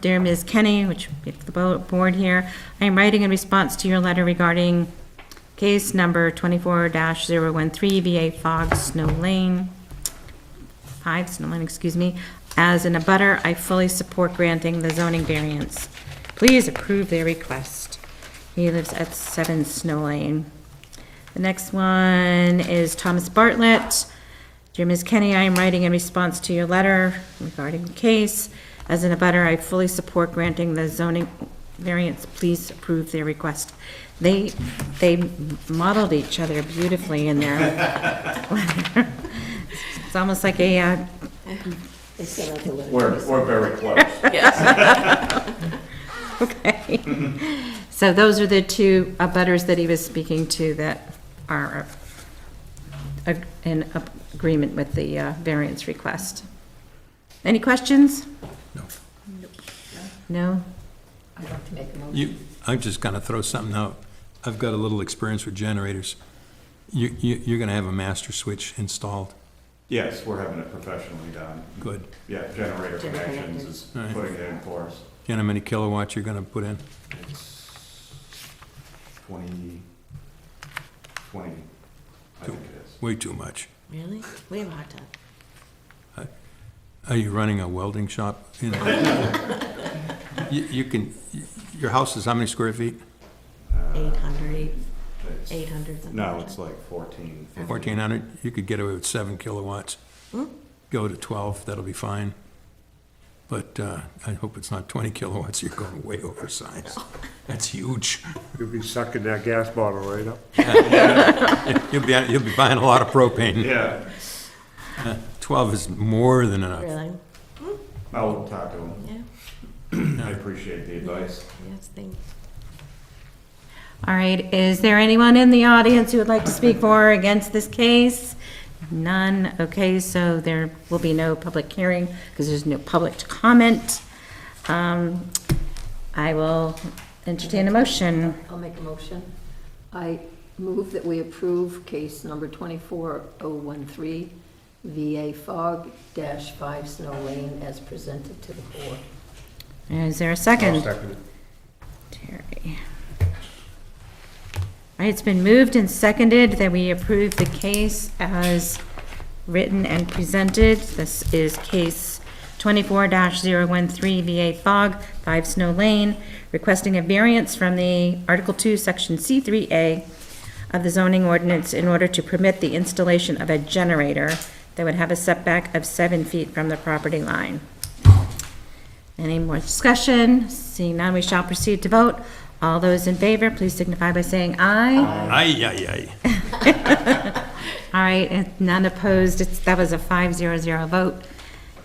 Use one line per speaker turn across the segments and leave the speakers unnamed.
Dear Ms. Kenny, which if the bo- board here, I am writing in response to your letter regarding case number 24-013 VA Fog Snow Lane, 5 Snow Lane, excuse me. As an abutter, I fully support granting the zoning variance. Please approve their request. He lives at 7 Snow Lane. The next one is Thomas Bartlett. Dear Ms. Kenny, I am writing in response to your letter regarding the case. As an abutter, I fully support granting the zoning variance. Please approve their request. They, they modeled each other beautifully in their letter. It's almost like a, uh,
They sent out the letter.
We're, we're very close.
Yes.
okay. So those are the two abutters that he was speaking to that are uh, in agreement with the uh, variance request. Any questions? No?
I'd like to make a motion.
You, I'm just gonna throw something out. I've got a little experience with generators. You, you, you're gonna have a master switch installed.
Yes, we're having it professionally done.
Good.
Yeah, generator connections is
Alright.
putting it in for us.
You know how many kilowatts you're gonna put in?
It's twenty, twenty, I think it is.
Way too much.
Really? We have a hot tub.
Are you running a welding shop? You know? You, you can, your house is how many square feet?
Eight hundred,
It's-
eight hundred, something
No,
like
it's
that.
like fourteen. 15.
Fourteen hundred? You could get away with seven kilowatts. Go to twelve, that'll be fine. But, uh, I hope it's not twenty kilowatts. You're going way over size. That's huge.
You'll be sucking that gas bottle right up.
You'll be, you'll be buying a lot of propane.
Yeah,
12 is more than enough.
Really?
I'll talk to him.
Yeah,
I appreciate the advice.
yes, thanks.
All right, is there anyone in the audience who would like to speak for or against this case? None, okay, so there will be no public hearing because there's no public to comment. Um, I will entertain a motion.
I'll make a motion. I move that we approve case number 24013, VA Fog dash 5 Snow Lane as presented to the board.
Is there a
I'll
second?
second it.
Terry. All right, it's been moved and seconded that we approve the case as written and presented. This is case 24-013 VA Fog, 5 Snow Lane, requesting a variance from the Article 2, Section C3A of the zoning ordinance in order to permit the installation of a generator that would have a setback of 7 feet from the property line. Any more discussion? Seeing none, we shall proceed to vote. All those in favor, please signify by saying aye.
Aye, aye, aye.
All right, and none opposed, It's- that was a 5-0-0 vote.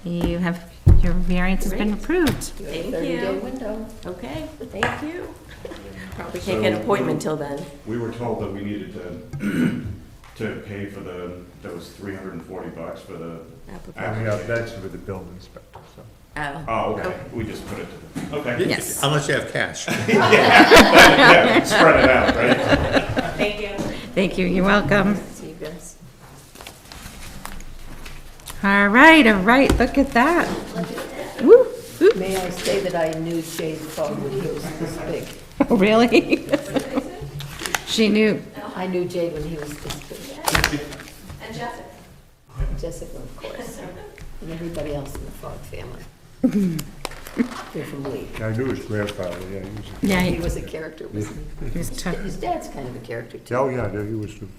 You have, your variance has been approved.
Thank
30-day
you.
window.
Okay, thank you. Probably can't get an
So-
appointment till then.
We were told that we needed to, to pay for the, that was three hundred and forty bucks for the.
And we
application.
have that's with the building inspector, so.
Oh,
Oh, okay, we just put it to the, okay.
Yes.
Unless you have cash.
Yeah, spread it out, right?
thank you.
Thank you, you're welcome.
See you guys.
All right, all right, look at that. Woo, woo.
May I say that I knew Jay's fog when he was this big?
Oh, Really? She knew.
I knew Jay when he was this big. And Jessica. Jessica, of course. And everybody else in the Fog family. They're from Lee.
I knew his grandfather, yeah, he was,
Yeah,
He
it
was a character, wasn't
was tough.
he? His dad's kind of a character, too.
oh, yeah, he was the
All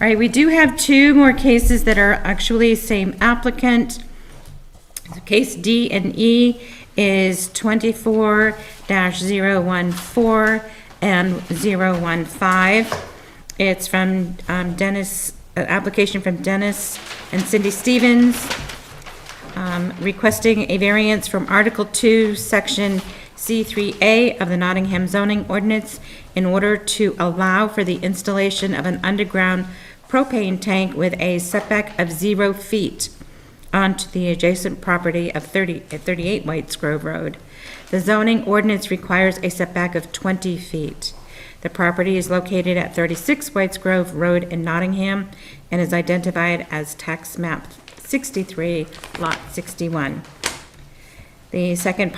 right, we do have two more cases that are actually same applicant. Case D and E is twenty-four 14 and 015. It's from um, Dennis, an application from Dennis and Cindy Stevens um, requesting a variance from Article 2, Section C3A of the Nottingham zoning ordinance in order to allow for the installation of an underground propane tank with a setback of zero feet onto the adjacent property of 30, at 38 Whites Grove Road. The zoning ordinance requires a setback of 20 feet. The property is located at 36 Whites Grove Road in Nottingham and is identified as tax map 63, lot 61. The second